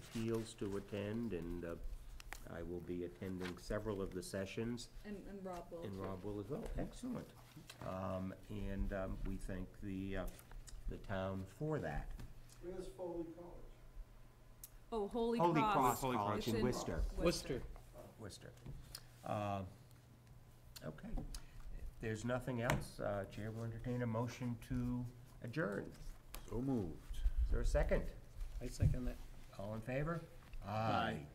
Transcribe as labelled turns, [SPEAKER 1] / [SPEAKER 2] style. [SPEAKER 1] Appeals to attend, and uh, I will be attending several of the sessions,
[SPEAKER 2] And, and Rob will.
[SPEAKER 1] and
[SPEAKER 2] too.
[SPEAKER 1] Rob will as well. Excellent. Um, And um, we thank the, uh, the town for that.
[SPEAKER 3] Where's Foley College?
[SPEAKER 2] Oh, Holy Cross.
[SPEAKER 1] Holy Cross
[SPEAKER 4] Holy Cross.
[SPEAKER 1] College
[SPEAKER 2] It's
[SPEAKER 1] in Worcester.
[SPEAKER 2] Worcester.
[SPEAKER 1] Worcester. Uh, Okay. If There's nothing else. uh, Chair will entertain a motion to adjourn.
[SPEAKER 4] So moved.
[SPEAKER 1] Is there a second?
[SPEAKER 5] I second that.
[SPEAKER 1] All in favor? Aye.